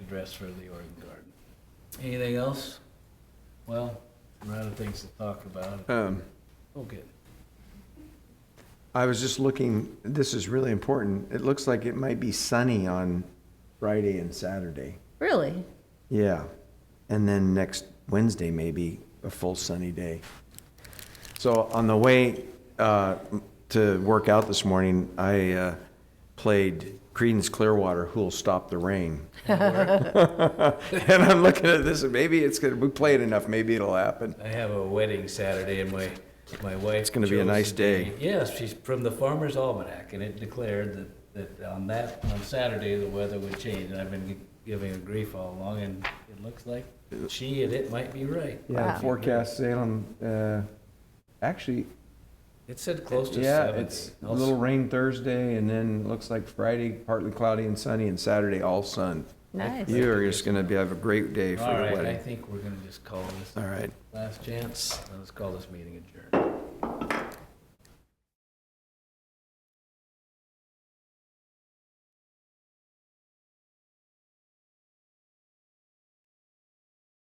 address for the Oregon Garden. Anything else? Well, we're out of things to talk about. Um, Okay. I was just looking, this is really important. It looks like it might be sunny on Friday and Saturday. Really? Yeah. And then next Wednesday, maybe a full sunny day. So on the way uh, to work out this morning, I uh, played Creedence Clearwater, Who'll Stop the Rain. and I'm looking at this, and maybe it's going to, we play it enough, maybe it'll happen. I have a wedding Saturday and my, my wife. It's gonna be a nice day. Yes, she's from the Farmer's Almanac and it declared that, that on that, on Saturday, the weather would change. And I've been giving her grief all along and it looks like she and it might be right. Yeah, Wow. forecast Salem, uh, actually, It said close to yeah, seventy. it's a little rain Thursday, and then looks like Friday partly cloudy and sunny, and Saturday all sun. Nice. You are just gonna be, have a great day for All the right, I wedding. think we're gonna just call this All right. last chance. Let's call this meeting adjourned.